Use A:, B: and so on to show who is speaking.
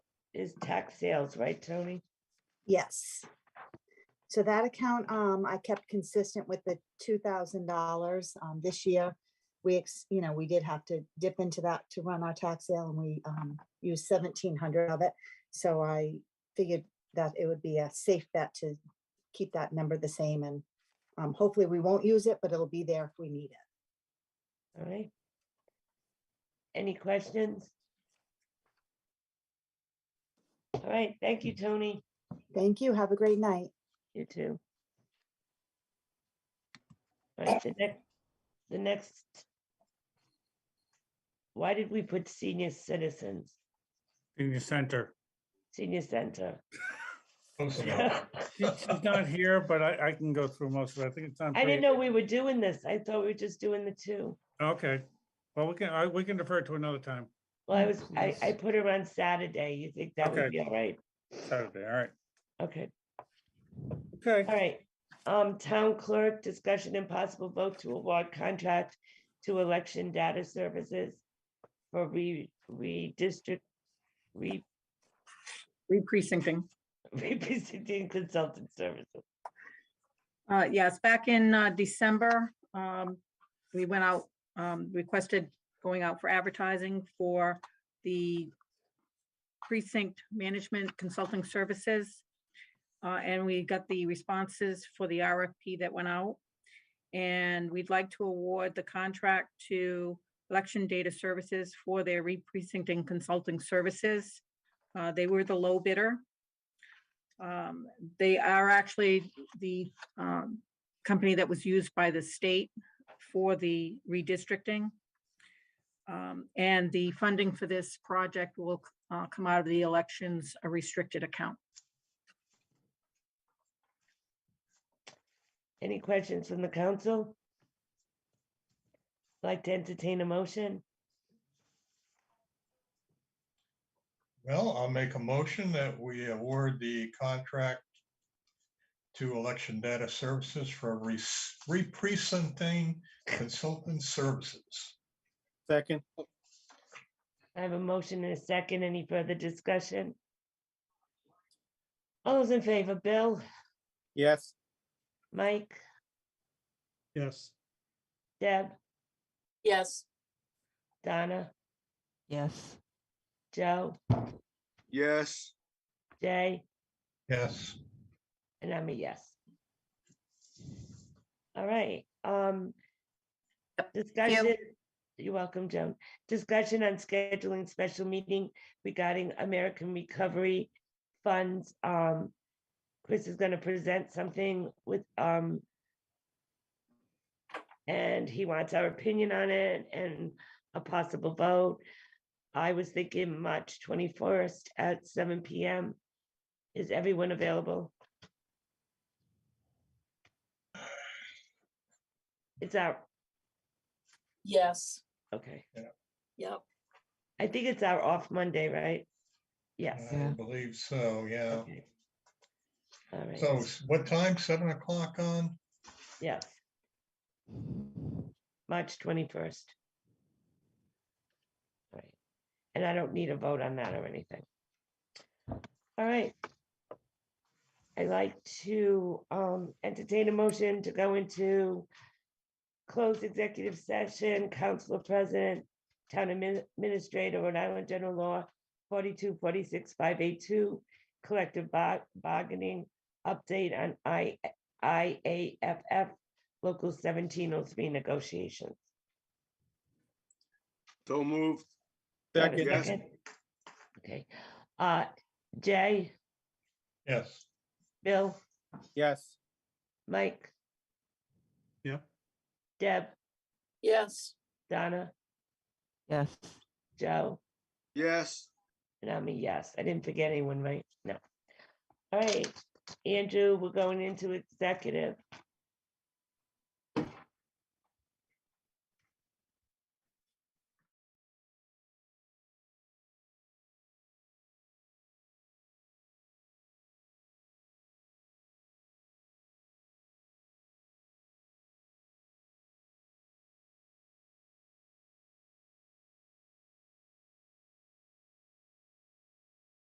A: is tax sales, right, Tony?
B: Yes. So that account, um, I kept consistent with the two thousand dollars, um, this year. We, ex- you know, we did have to dip into that to run our tax sale and we, um, used seventeen hundred of it. So I figured that it would be a safe bet to keep that number the same and, um, hopefully we won't use it, but it'll be there if we need it.
A: All right. Any questions? All right, thank you, Tony.
B: Thank you. Have a great night.
A: You too. All right, the next, the next. Why did we put senior citizens,
C: senior center.
A: senior center?
D: Close enough.
A: I
C: She- She's not here, but I, I can go through most of it. I think it's on.
A: didn't know we were doing this. I thought we were just doing the two.
C: Okay, well, we can, I, we can defer to another time,
A: Well, I was, I, I put her on Saturday. You think that would
C: Okay.
A: be all right?
C: Saturday, all right,
A: Okay, all
C: okay.
A: right. Um, town clerk, discussion and possible vote to award contract to election data services for re, redistrict, re,
E: re-precincting.
A: representing consultant services.
E: Uh, yes, back in uh, December, um, we went out, um, requested going out for advertising for the precinct management consulting services. Uh, and we got the responses for the RFP that went out. And we'd like to award the contract to Election Data Services for their re-precincting consulting services. Uh, they were the low bidder. Um, they are actually the um, company that was used by the state for the redistricting. Um, And the funding for this project will uh, come out of the elections a restricted account.
A: Any questions from the council? Like to entertain a motion?
D: Well, I'll make a motion that we award the contract to Election Data Services for re- re-presenting consultant services.
C: Second,
A: I have a motion and a second. Any further discussion? All those in favor, Bill,
C: yes.
A: Mike,
C: Yes.
A: Deb,
F: yes,
A: Donna,
G: yes,
A: Joe,
H: yes,
A: Jay,
D: Yes,
A: and I'm a yes. All right, um, discussion, you're welcome, Joan. Discussion on scheduling special meeting regarding American Recovery Funds. Um, Chris is gonna present something with, um, and he wants our opinion on it and a possible vote. I was thinking March twenty-first at seven PM. Is everyone available? It's our,
F: yes,
A: okay.
F: yep.
A: I think it's our off Monday, right? Yes.
D: I
G: Yeah.
D: believe so, yeah.
A: Okay. All
D: So
A: right,
D: s- what time? Seven o'clock on?
A: yes. March twenty-first. Right, and I don't need a vote on that or anything. All right. I'd like to um entertain a motion to go into closed executive session, council president, town admin- administrator, Rhode Island General Law, forty-two, forty-six, five, eight, two, collective bar- bargaining, update on I, IAFF, local seventeen oh three negotiations.
H: so moved,
A: Do I have a
H: Second. Yes.
A: second? Okay, uh, Jay,
D: Yes.
A: Bill,
C: yes.
A: Mike?
C: Yeah.
A: Deb,
F: Yes.
A: Donna,
G: yes.
A: Joe?
H: yes.
A: And I'm a yes. I didn't forget anyone, right? No. All right, Andrew, we're going into executive.